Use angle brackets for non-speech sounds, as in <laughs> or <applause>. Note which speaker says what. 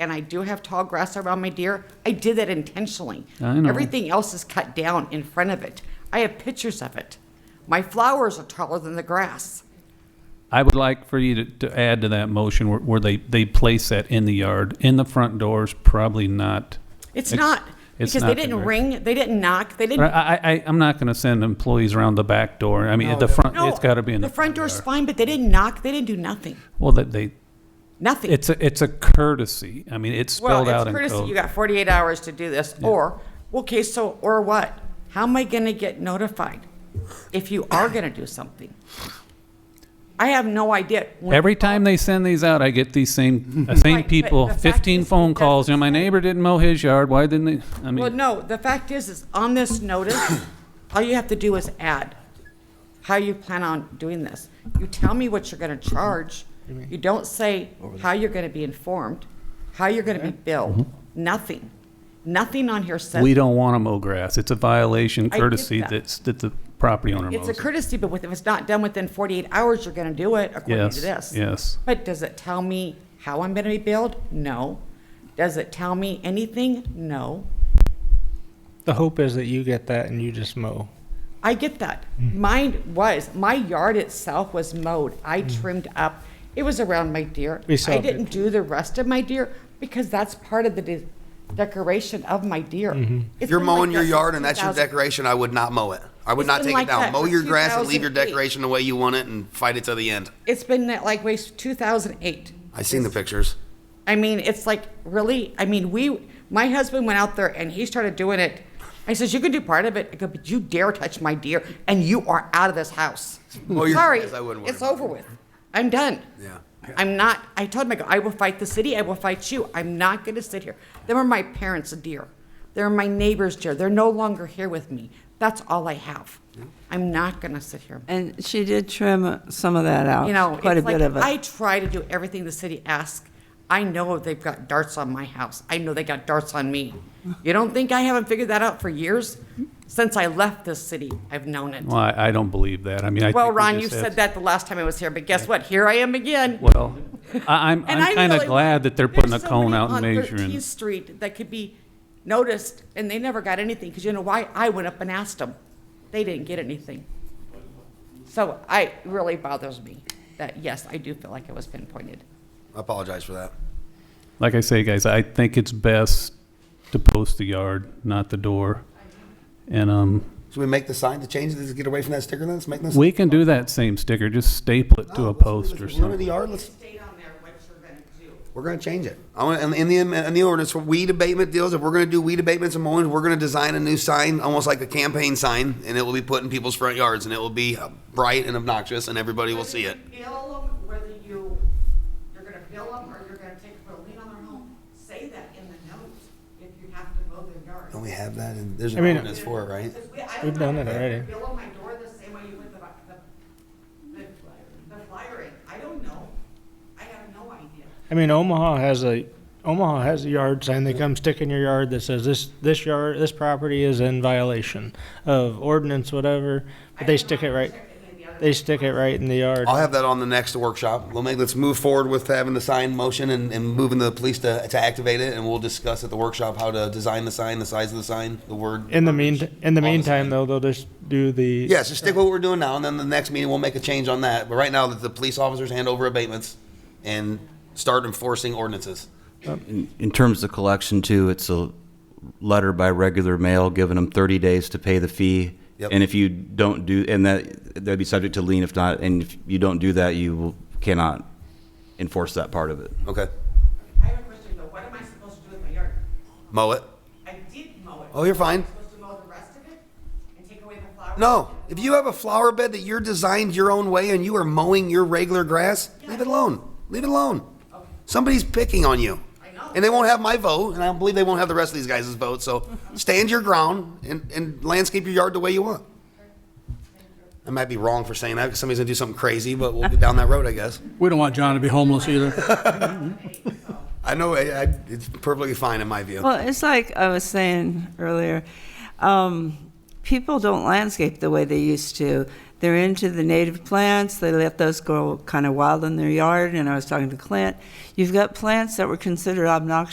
Speaker 1: and I do have tall grass around my deer. I did that intentionally.
Speaker 2: I know.
Speaker 1: Everything else is cut down in front of it. I have pictures of it. My flowers are taller than the grass.
Speaker 2: I would like for you to, to add to that motion where, where they, they place that in the yard, in the front doors, probably not.
Speaker 1: It's
Speaker 2: Ex-
Speaker 1: not
Speaker 2: it's
Speaker 1: because
Speaker 2: not
Speaker 1: they
Speaker 2: the
Speaker 1: didn't
Speaker 2: gra-
Speaker 1: ring, they didn't knock, they
Speaker 2: I,
Speaker 1: didn't.
Speaker 2: I, I- I'm not gonna send employees around the back door. I mean, the front,
Speaker 1: No,
Speaker 2: it's gotta be in the.
Speaker 1: front door's
Speaker 2: yard.
Speaker 1: fine, but they didn't knock, they didn't do nothing,
Speaker 2: Well, that they,
Speaker 1: nothing.
Speaker 2: it's a, it's a courtesy. I mean, it's
Speaker 1: Well,
Speaker 2: spelled
Speaker 1: it's
Speaker 2: out in
Speaker 1: courtesy, you
Speaker 2: code.
Speaker 1: got 48 hours to do this, or, okay, so, or what? How am I going to get notified if you are going to do something? I have no idea. When-
Speaker 2: Every time they send these out, I get these
Speaker 1: <laughs>
Speaker 2: same, uh, same
Speaker 1: Right, but
Speaker 2: people,
Speaker 1: the fact
Speaker 2: fifteen
Speaker 1: is,
Speaker 2: phone
Speaker 1: that's
Speaker 2: calls, you know,
Speaker 1: the
Speaker 2: my
Speaker 1: thing.
Speaker 2: neighbor didn't mow his yard, why didn't they? I
Speaker 1: Well,
Speaker 2: mean,
Speaker 1: no, the fact is, is on this
Speaker 2: <coughs>
Speaker 1: notice, all you have to do is add how you plan on doing this. You tell me what you're going to charge. You don't say how you're going to be informed, how you're going to be billed, nothing. Nothing on here says.
Speaker 2: Mm-hmm. we don't wanna mow grass. It's a violation
Speaker 1: get
Speaker 2: courtesy
Speaker 1: that.
Speaker 2: that's, that the property owner
Speaker 1: It's
Speaker 2: mows.
Speaker 1: a
Speaker 2: it.
Speaker 1: courtesy, but with- if it's not done within 48 hours, you're going to do it according
Speaker 2: Yes,
Speaker 1: to this.
Speaker 2: yes.
Speaker 1: But does it tell me how I'm going to be billed? No. Does it tell me anything? No.
Speaker 3: The hope is that you get that and you just mow.
Speaker 1: I get that.
Speaker 3: Mm.
Speaker 1: Mine was, my yard itself was mowed. I trimmed up. It was around my deer.
Speaker 3: Mm. We saw
Speaker 1: I
Speaker 3: it.
Speaker 1: didn't do the rest of my deer because that's part of the de- decoration of my deer.
Speaker 3: Mm-hmm.
Speaker 1: It's
Speaker 4: If you're
Speaker 1: been like
Speaker 4: mowing your
Speaker 1: that since
Speaker 4: yard and that's your
Speaker 1: 2000.
Speaker 4: decoration, I would not mow it. I would
Speaker 1: It's
Speaker 4: not
Speaker 1: been
Speaker 4: take
Speaker 1: like
Speaker 4: it down.
Speaker 1: that
Speaker 4: Mow
Speaker 1: for
Speaker 4: your grass and leave your
Speaker 1: 2008.
Speaker 4: decoration the way you want it and fight it to the end.
Speaker 1: It's been that like way since 2008.
Speaker 4: I seen the pictures.
Speaker 1: I mean, it's like really. I mean, we. My husband went out there and he started doing it. I says, "You can do part of it." I go, "But you dare touch my deer, and you are out of this house."
Speaker 4: <laughs> Well, Oh, you're-
Speaker 1: Sorry,
Speaker 4: yes, I wouldn't worry
Speaker 1: it's
Speaker 4: about
Speaker 1: over with. I'm done.
Speaker 4: Yeah.
Speaker 1: I'm not. I told him, I go, "I will fight the city. I will fight you. I'm not going to sit here." They were my parents' deer. They're my neighbor's deer. They're no longer here with me. That's all I have. I'm not going to sit here.
Speaker 5: And she did trim some of that out,
Speaker 1: You know,
Speaker 5: quite a
Speaker 1: it's like,
Speaker 5: bit of
Speaker 1: I
Speaker 5: it.
Speaker 1: try to do everything the city asks. I know they've got darts on my house. I know they got darts on me. You don't think I haven't figured that out for years? Since I left this city, I've known it.
Speaker 2: Well, I, I don't believe that. I mean, I.
Speaker 1: Well,
Speaker 2: think we
Speaker 1: Ron,
Speaker 2: just
Speaker 1: you
Speaker 2: have-
Speaker 1: said that the last time I was here, but guess what? Here I am again.
Speaker 2: Well, I, I'm,
Speaker 1: And I
Speaker 2: I'm kind
Speaker 1: really-
Speaker 2: of glad that they're putting a
Speaker 1: there's
Speaker 2: cone
Speaker 1: somebody
Speaker 2: out and
Speaker 1: on
Speaker 2: measuring.
Speaker 1: 13th Street that could be noticed, and they never got anything, because you know why? I went up and asked them. They didn't get anything. So I, it really bothers me that, yes, I do feel like it was pinpointed.
Speaker 4: I apologize for that.
Speaker 2: Like I say, guys, I think it's best to post the yard, not the door. And, um,
Speaker 4: Should we make the sign to change this, get away from that sticker then? Let's make this.
Speaker 2: we can do that same sticker, just staple it to a post or
Speaker 4: Oh, We're in the
Speaker 2: something.
Speaker 4: yard, let's,
Speaker 1: state on there what you're gonna do.
Speaker 4: we're gonna change it. I want, in, in the, in the ordinance for weed abatement deals, if we're gonna do weed abatements and mowings, we're gonna design a new sign, almost like the campaign sign, and it will be put in people's front yards and it will be uh, bright and obnoxious and everybody will see it.
Speaker 1: Bill them, whether you, you're gonna bill them or you're gonna take a lien on their home, say that in the notes if you have to mow their yard.
Speaker 4: Don't we have that? And there's
Speaker 3: I
Speaker 4: an
Speaker 3: mean-
Speaker 4: ordinance for it, right?
Speaker 1: Because we- I
Speaker 3: We've
Speaker 1: don't
Speaker 3: done
Speaker 1: have
Speaker 3: it
Speaker 1: to
Speaker 3: already.
Speaker 1: Bill on my door the same way you would the, the, the- the flyer in. I don't know. I have no idea.
Speaker 3: I mean, Omaha has a Omaha has a yard sign. They come stick in your yard that says this this yard this property is in violation of ordinance whatever, but they stick it right. They stick it right in the yard.
Speaker 4: I'll have that on the next workshop. We'll make, let's move forward with having the sign motion and, and moving the police to, to activate it, and we'll discuss at the workshop how to design the sign, the size of the sign, the word.
Speaker 3: In the mean in the
Speaker 4: All the
Speaker 3: meantime,
Speaker 4: same.
Speaker 3: though, they'll just do the
Speaker 4: Yes, just stick with what we're doing now, and then the next meeting, we'll make a change on that. But right now, let the police officers hand over abatements and start enforcing ordinances.
Speaker 6: In- In terms of collection too, it's a letter by regular mail giving them 30 days to pay the fee.
Speaker 4: Yep.
Speaker 6: And if you don't do, and that, that'd be subject to lien if not, and if you don't do that, you will- cannot enforce that part of it.
Speaker 4: Okay,
Speaker 1: I have a question though. What am I supposed to do with my yard?
Speaker 4: mow it.
Speaker 1: I did mow it.
Speaker 4: Oh, you're fine.
Speaker 1: Supposed to mow the rest of it and take away the flowers?
Speaker 4: No, if you have a flower bed that you're designed your own way and you are mowing your regular grass, leave it alone. Leave it alone. Somebody's picking on you.
Speaker 1: I know.
Speaker 4: And they won't have my vote, and I believe they won't have the rest of these guys' vote. So stand your ground and, and landscape your yard the way you want. I might be wrong for saying that because somebody's going to do something crazy, but we'll get down that road, I guess.
Speaker 7: We don't want John to be homeless
Speaker 1: <laughs>
Speaker 7: either.
Speaker 4: I know I, I, it's perfectly fine in my view.
Speaker 5: Well, it's like I was saying earlier, um, people don't landscape the way they used to. They're into the native plants. They let those grow kind of wild in their yard. And I was talking to Clint. You've got plants that were considered obnoxious.